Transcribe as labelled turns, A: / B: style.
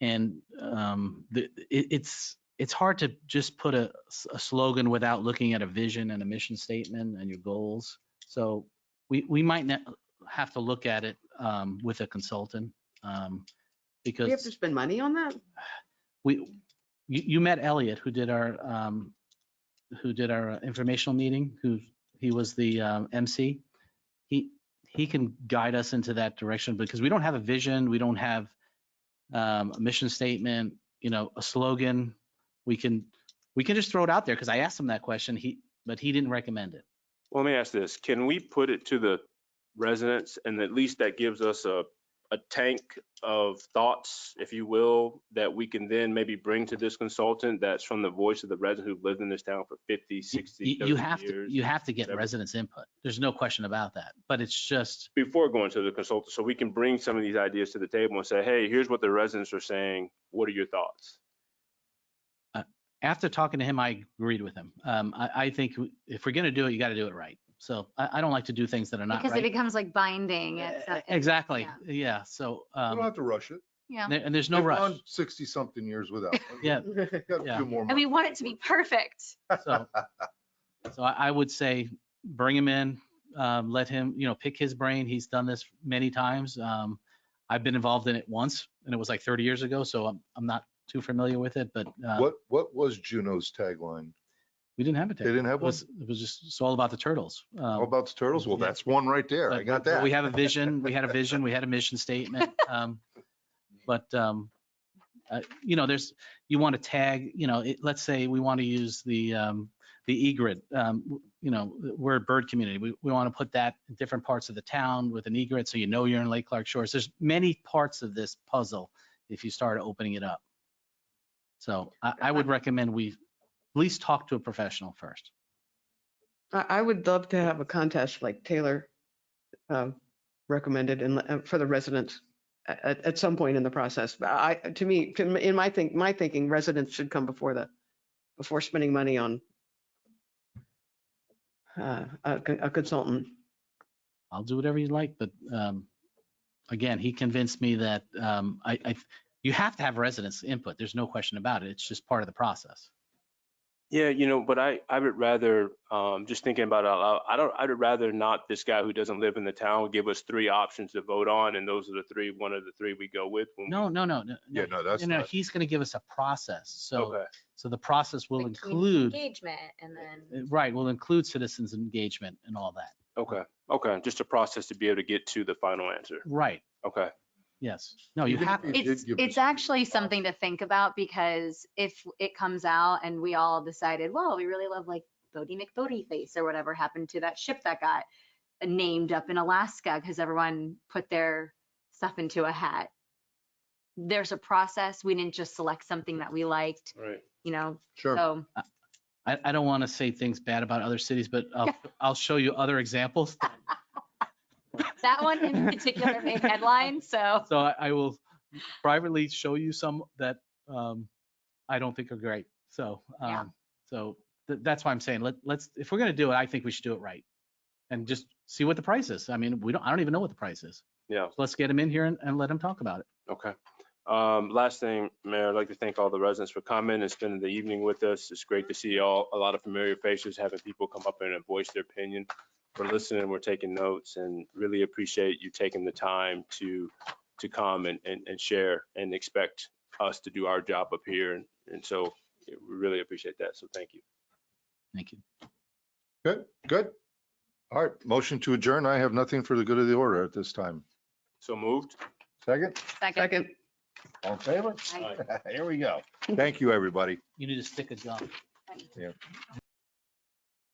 A: and um, the, it, it's it's hard to just put a, a slogan without looking at a vision and a mission statement and your goals. So we we might not have to look at it um, with a consultant um,
B: We have
A: because
B: to spend money on that?
A: we you, you met Elliot who did our um, who did our uh, informational meeting who he was the um, MC he he can guide us into that direction because we don't have a vision we don't have um, a mission statement you know a slogan we can we can just throw it out there because I asked him that question he but he didn't recommend it
C: Well, Let me ask this, can we put it to the residents and at least that gives us a, a tank of thoughts, if you will, that we can then maybe bring to this consultant that's from the voice of the resident who've lived in this town for 50,
A: You-
C: 60,
A: you, you
C: 30
A: have to
C: years?
A: you have to get
C: Seven.
A: residents input there's no question about that but it's just
C: Before going to the consultant, so we can bring some of these ideas to the table and say, hey, here's what the residents are saying, what are your thoughts?
A: after talking to him, I agreed with him. Um, I, I think w- if we're gonna do it, you gotta do it right. So I, I don't like to do things that are not
D: Because it
A: right.
D: becomes like binding.
A: E-
D: It's not- it's-
A: Exactly,
D: yeah.
A: yeah, so,
E: You don't
A: um,
E: have to rush it.
D: Yeah.
A: there- and there's no rush.
E: Sixty something years without. one.
A: Yeah,
E: You got a
A: yeah.
E: few more
D: And we
E: months.
D: want it to be perfect.
A: So, so I, I would say, bring him in, um, let him, you know, pick his brain. He's done this many times. Um, I've been involved in it once and it was like thirty years ago, so I'm, I'm not too familiar with it, but, uh,
E: What, what was Juno's tagline?
A: we didn't have a
E: They
A: turtle.
E: didn't
A: It
E: have one? Oh,
A: was, it was just, it's all about the turtles.
E: How
A: Um,
E: about the turtles? Well,
A: yeah.
E: that's one right there. I
A: But-
E: got
A: but
E: that.
A: We have a vision, we had a vision, we had a mission statement. um, But, um, uh, you know, there's, you want to tag, you know, it- let's say we want to use the, um, the egret. um, w- You know, we're a bird community. We, we want to put that in different parts of the town with an egret, so you know you're in Lake Clark Shores. There's many parts of this puzzle if you start opening it up. So I, I would recommend we at least talk to a professional first.
B: I, I would love to have a contest like Taylor um, recommended and uh, for the residents a- at, at some point in the process. But I, to me, to m- in my think, my thinking, residents should come before the, before spending money on uh, a con- a consultant.
A: I'll do whatever you like, but um, again, he convinced me that um, I, I, you have to have residents' input. There's no question about it. It's just part of the process.
C: Yeah, you know, but I, I would rather, um, just thinking about it, out loud, I don't, I'd rather not this guy who doesn't live in the town give us three options to vote on, and those are the three, one of the three we go with. when we-
A: No, no, no, no.
E: Yeah, no, that's
A: You know,
E: not-
A: he's going to give us a process. So,
C: Okay,
A: so the process will
D: Like, community
A: include, uh,
D: Engagement and then.
A: right, will include citizens' engagement and all that.
C: okay, okay, just a process to be able to get to the final answer.
A: Right,
C: Okay,
A: yes. No, you
E: Even if
A: have,
E: we did
D: It's,
E: give us-
D: it's actually something to think about because if it comes out and we all decided, well, we really love like Bodie McBodie face or whatever happened to that ship that got named up in Alaska because everyone put their stuff into a hat. There's a process. We didn't just select something that we liked,
C: all right.
D: you know,
E: Sure.
D: so.
A: I, I don't want to say things bad about other cities, but I'll, I'll show you other examples.
D: That one in particular made headlines, so
A: So I, I will privately show you some that um, I don't think are great. So,
D: Yeah.
A: um, so th- that's why I'm saying let, let's if we're gonna do it, I think we should do it right, and just see what the price is. I mean, we don't. I don't even know what the price is.
C: Yeah.
A: So let's get them in here and, and let them talk about it.
C: Okay. Um, last thing, Mayor, I'd like to thank all the residents for coming and spending the evening with us. It's great to see all, a lot of familiar faces, having people come up and voice their opinion. We're listening, we're taking notes and really appreciate you taking the time to, to come and, and, and share and expect us to do our job up here. And, and so yeah, we really appreciate that. So thank you.
A: Thank you.
E: Good, good. All right, motion to adjourn. I have nothing for the good of the order at this time.
C: So moved?
E: Second,
D: second.
B: Second,
E: all in favor?
D: I-
E: Here we go. Thank you, everybody.
A: You need a stick of gum.